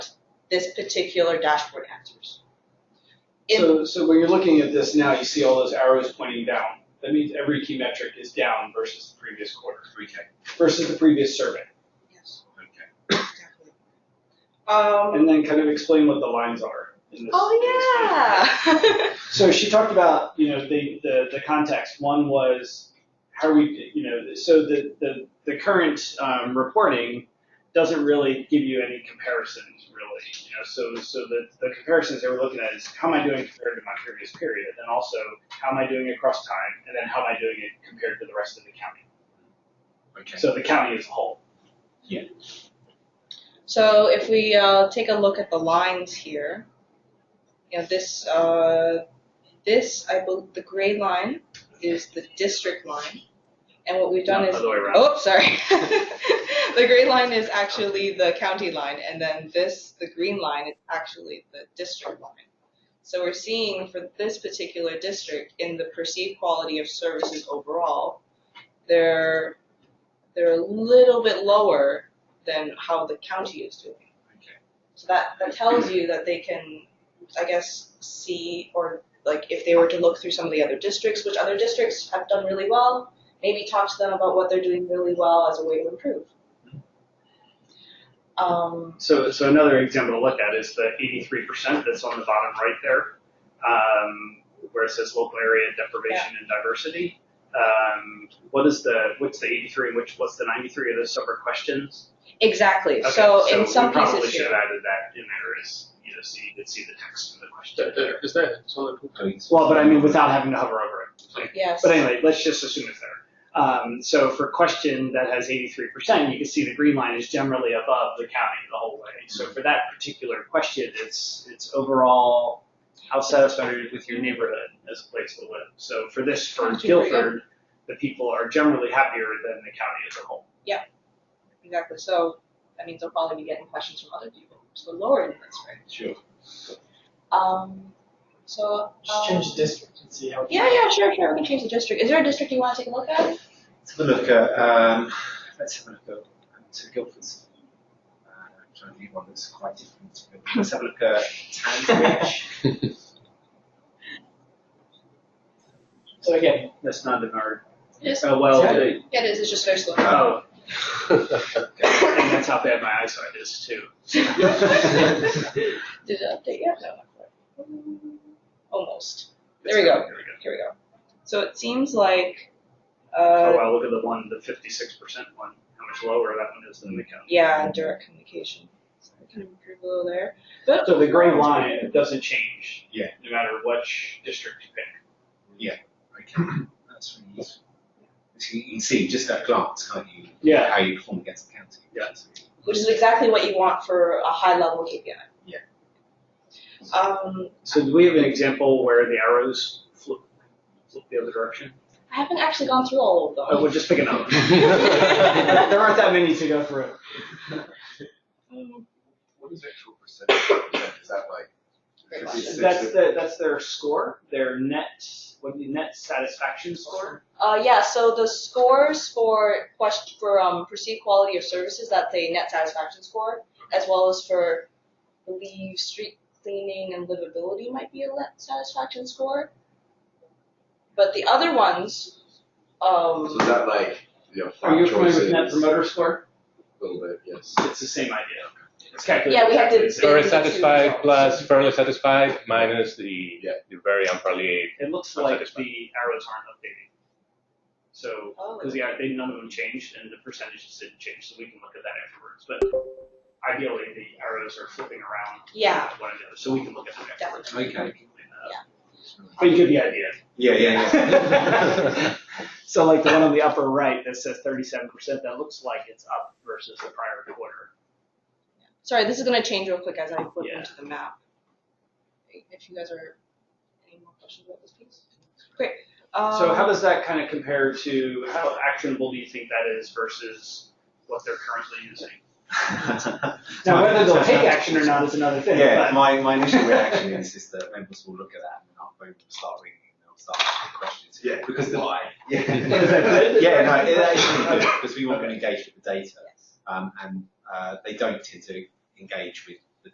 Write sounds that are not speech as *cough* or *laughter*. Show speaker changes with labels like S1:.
S1: this particular dashboard answers. If-
S2: So, so when you're looking at this now, you see all those arrows pointing down. That means every key metric is down versus the previous quarter,
S3: Okay,
S2: versus the previous survey.
S1: Yes,
S3: okay.
S1: definitely. Um,
S2: And then kind of explain what the lines are in this. in this
S1: *laughs*
S2: paper.
S1: oh,
S2: So she talked about, you know, the, the, the context. One was how we, you know, so the, the, the current um, reporting doesn't really give you any comparisons, really. You know, so so the, the comparisons they were looking at is how am I doing compared to my previous period, and also how am I doing across time, and then how am I doing it compared to the rest of the county.
S3: Okay.
S2: So the county as a whole.
S1: yeah. So if we, uh, take a look at the lines here, you know, this, uh, this, I believe, the gray line is the district line. And what we've done
S2: Not
S1: is
S2: the other way around.
S1: Oh, sorry. *laughs* the gray line is actually the county line, and then this, the green line, is actually the district line. So we're seeing for this particular district in the perceived quality of services overall, they're they're a little bit lower than how the county is doing.
S3: Okay.
S1: So that that tells you that they can, I guess, see or like if they were to look through some of the other districts, which other districts have done really well, maybe talk to them about what they're doing really well as a way to improve. Um,
S2: So, so another example to look at is the 83% that's on the bottom right there, um, where it says local area deprivation and diversity. Um, what is the what's the 83 and which what's the 93 are those separate questions?
S1: exactly.
S2: Okay,
S1: so, in some
S2: we probably
S1: cases
S2: should
S1: here,
S2: have added that in there as you know so you could see the text of the question.
S4: That- that- Is that, it's on the,
S3: I mean, it's-
S2: Well, but I mean without having to hover over it.
S1: yes.
S2: But anyway, let's just assume it's there. Um, so for question that has 83%, you can see the green line is generally above the county the whole way. So for that particular question, it's it's overall how satisfied are you with your neighborhood as a place to live. So for this, for
S1: That's pretty good.
S2: Guilford, the people are generally happier than the county as a whole.
S1: exactly. So that means they'll probably be getting questions from other people. So lower than this, right?
S3: Sure.
S1: Um, so
S5: Just
S1: um,
S5: change the district and see how.
S1: yeah, yeah, sure, sure. We can change the district. Is there a district you want to take a look at?
S3: Let's have a look at, um, let's have a look at, um, so Guildford's, uh, I'm trying to think of one that's quite different. but Let's have a look at
S5: *laughs*
S3: *laughs* Tanbridge.
S2: So again, that's not in our,
S1: Yes.
S2: oh, well,
S3: Tanbridge.
S1: Yeah, it is. It's just very slow. *laughs*
S2: oh,
S3: Okay.
S2: *laughs* and that's how bad my eyesight is too.
S1: Did it update yet? No, not quite. Mm, Almost. There we go.
S2: There we go.
S1: Here we go. So it seems like. Uh,
S2: Oh, wow, look at the one, the 56% one, how much lower that one is than the county.
S1: Yeah, direct communication. So we can improve a little there. But
S2: So the gray line it doesn't change.
S3: Yeah.
S2: No matter which district you pick.
S3: Okay, that's really useful. So you can see just at a glance, can't you?
S2: Yeah.
S3: How you perform against the county.
S2: Yeah.
S1: which is exactly what you want for a high level KPI.
S3: Yeah.
S1: Um,
S2: So do we have an example where the arrows flip, flip the other direction?
S1: I haven't actually gone through all of them.
S2: Oh, we'll just pick another. *laughs* one.
S1: There- there
S2: aren't that many to go through.
S3: What is actual percentage? Is that like?
S1: Great
S2: That's the, that's their score, their net, what the net satisfaction score.
S1: Uh, yeah, so the scores for question, for um, perceived quality of services, that's a net satisfaction score, as well as for, I believe, street cleaning and livability might be a net satisfaction score. But the other ones,
S6: So
S1: um,
S6: is that like, you know,
S2: Are you
S6: five
S2: familiar with
S6: choices,
S2: net
S6: a
S2: promoter score?
S6: little bit, yes.
S2: It's the same idea. It's calculated.
S1: Yeah, we have to-
S2: exactly the same.
S4: very satisfied plus fairly satisfied minus the,
S6: Yeah.
S4: the very unfairly.
S2: It looks
S4: I'm
S2: like
S4: satisfied.
S2: the arrows aren't updated. So
S1: oh,
S2: Because yeah, they, none of them changed and the percentages didn't change, so we can look at that afterwards. But ideally, the arrows are flipping around
S1: yeah,
S2: one another, so we can look at that afterwards.
S1: definitely.
S3: Okay.
S2: But you get the idea.
S3: Yeah,
S4: *laughs*
S3: yeah, yeah.
S2: So like the one on the upper right that says thirty-seven percent, that looks like it's up versus the prior quarter.
S1: Sorry, this is gonna change real quick as I flip
S2: Yeah.
S1: into the map. If you guys are, any more questions about this piece? Great, um.
S2: So how does that kind of compare to, how actionable do you think that is versus what they're currently using?
S5: *laughs*
S3: *laughs*
S2: Now, whether they'll take action or not is another thing,
S3: Yeah,
S2: but.
S3: my, my initial
S2: *laughs*
S3: reaction is just that members will look at that and then our phone will start ringing and they'll start asking questions.
S6: Yeah.
S3: Because the.
S2: Why? *laughs* Is that
S3: Yeah.
S2: good?
S3: Yeah, no, it
S2: *laughs*
S3: actually because we want them
S2: Okay.
S3: engaged with the data.
S1: Yes.
S3: um, and uh, they don't tend to engage with